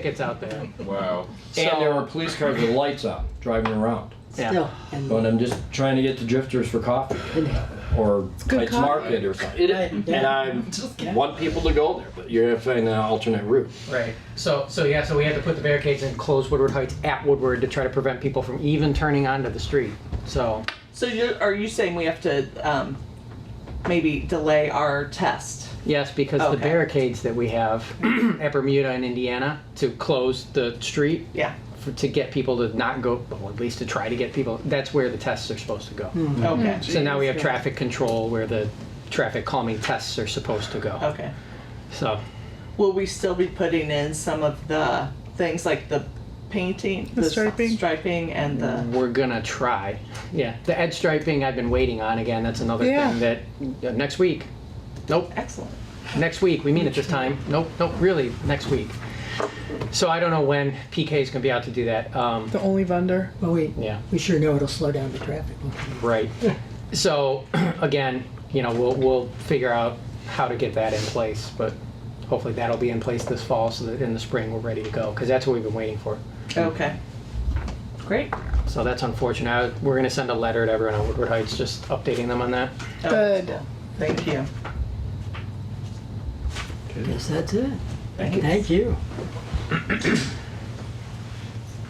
tickets out there. Wow. So- And there were police cars with lights on driving around. Yeah. Still, and But I'm just trying to get to Drifters for coffee or good Heights coffee. Market or something. It- Right, yeah. And I want people to go there, but you're gonna find an alternate route. Right. So so yeah. So we had to put the barricades and close Woodward Heights at Woodward to try to prevent people from even turning onto the street. So So you are you saying we have to um, maybe delay our test? yes, because the Okay. barricades that we have at Bermuda and Indiana to close the street Yeah. for, to get people to not go, well, at least to try to get people. That's where the tests are supposed to go. Okay. So now we have traffic control where the traffic calming tests are supposed to go. Okay. So Will we still be putting in some of the things like the painting, the, s- striping? striping, and the we're gonna try. Yeah, the edge striping I've been waiting on again. That's another Yeah. thing that uh, next week. Nope, excellent? next week. We mean it this time. Nope, nope. Really, next week. So I don't know when PK is gonna be out to do that. Um, The only vendor. well, we, yeah. Oh, we sure know it'll slow down the traffic. Right. So, again, you know, we'll, we'll figure out how to get that in place, but hopefully that'll be in place this fall so that in the spring we're ready to go, because that's what we've been waiting for. Okay. Great. So that's unfortunate. I- We're gonna send a letter to everyone on Woodward Heights, just updating them on that. Oh, that's Good. cool. Thank you. Yes, that's it. Thank you. Thank you.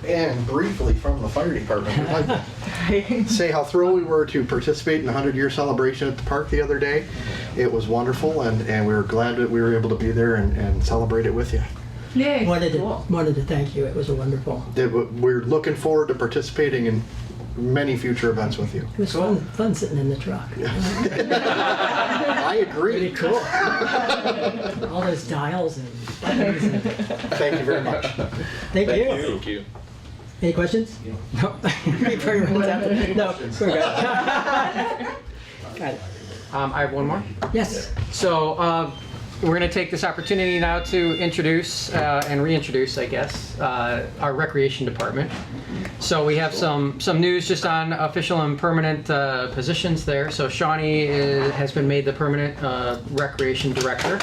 And briefly from the fire department, we'd like to say how thrilled we were to participate in the 100 year celebration at the park the other day. It was wonderful, and, and we were glad that we were able to be there and, and celebrate it with you. Yay. Wanted to, Cool. wanted to thank you. It was a wonderful, That w- We're looking forward to participating in many future events with you. it was fun, fun sitting in the truck. I Pretty agree. cool. All those dials and buttons. and- Thank you very much. Thank you. Thank you. Any questions? No. Before everyone's out. No, we're good. Got it. Um, I have one more. Yes, So, uh, we're gonna take this opportunity now to introduce, uh, and reintroduce, I guess, uh, our recreation department. So we have some, some news just on official and permanent, uh, positions there. So Shawnee is, has been made the permanent, uh, recreation director.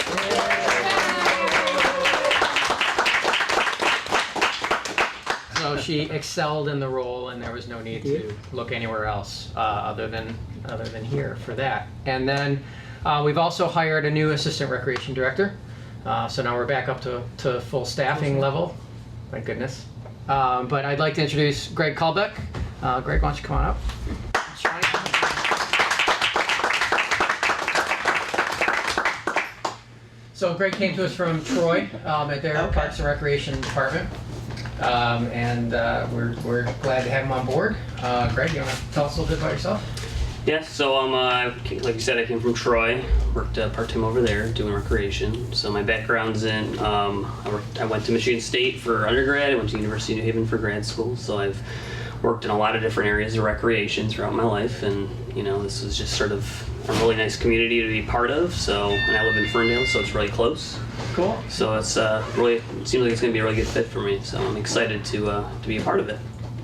So she excelled in the role, and there was no need to look anywhere else uh, other than other than here for that. And then uh, we've also hired a new assistant recreation director. Uh, so now we're back up to, to full staffing level. Thank goodness. Um, but I'd like to introduce Greg Kalbeck. Uh, Greg, why don't you come on up? So Greg came to us from Troy um, at their Okay. Parks and Recreation Department. Um, and uh, we're, we're glad to have him on board. Uh, Greg, you want to tell us a little bit about yourself? Yeah, so um, uh, like you said, I came from Troy. Worked uh, part time over there doing recreation. So my background's in um, I, worked, I went to Michigan State for undergrad. I went to University of New Haven for grad school. So I've worked in a lot of different areas of recreation throughout my life, and you know this was just sort of a really nice community to be part of. So and I live in Ferndale, so it's really close. Cool. So it's uh, really it seems like it's going to be a really good fit for me. So I'm excited to uh, to be a part of it.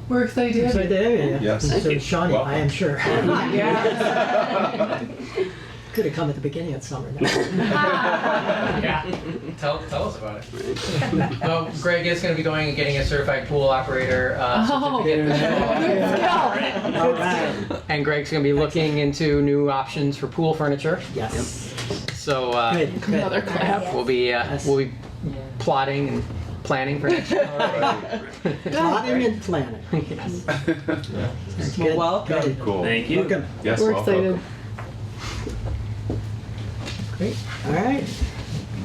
We're excited. so there you go. Yes. So Thank you. Shawnee, I am sure. Yeah. Could have come at the beginning of summer. No. Yeah, tell, tell us about it. Well, Greg is going to be going and getting a certified pool operator uh, Oh. certificate. All right. And Greg's going to be looking into new options for pool furniture. Yes. So uh, Good. good. we'll be uh, Yes. we'll be plotting and planning for next year. Plotting and planning. Yes. Good, welcome. good. Cool. Thank you. Welcome. Yes, We're well, excited. welcome. Great. All right.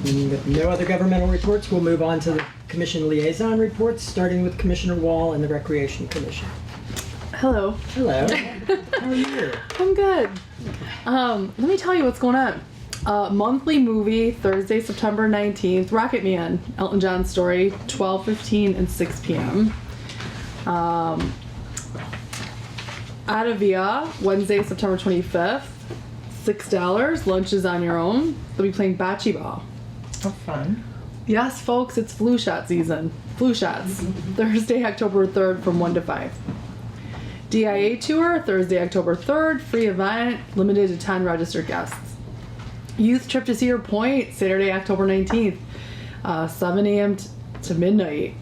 With no other governmental reports, we'll move on to the commission liaison reports, starting with Commissioner Wall and the Recreation Commission. Hello. Hello. How are you? I'm good. Um, let me tell you what's going on. Uh, monthly movie Thursday, September 19th, Rocket Man, Elton John story, 12:15 and 6 p.m. Um, Atavia, Wednesday, September 25th, six dollars. Lunch is on your own. They'll be playing bocce ball. How fun. Yes, folks, it's flu shot season. Flu shots. Thursday, October 3rd from 1 to 5. DIA tour, Thursday, October 3rd, free event, limited to 10 registered guests. Youth trip to Cedar Point, Saturday, October 19th, uh, 7 a.m. t- to midnight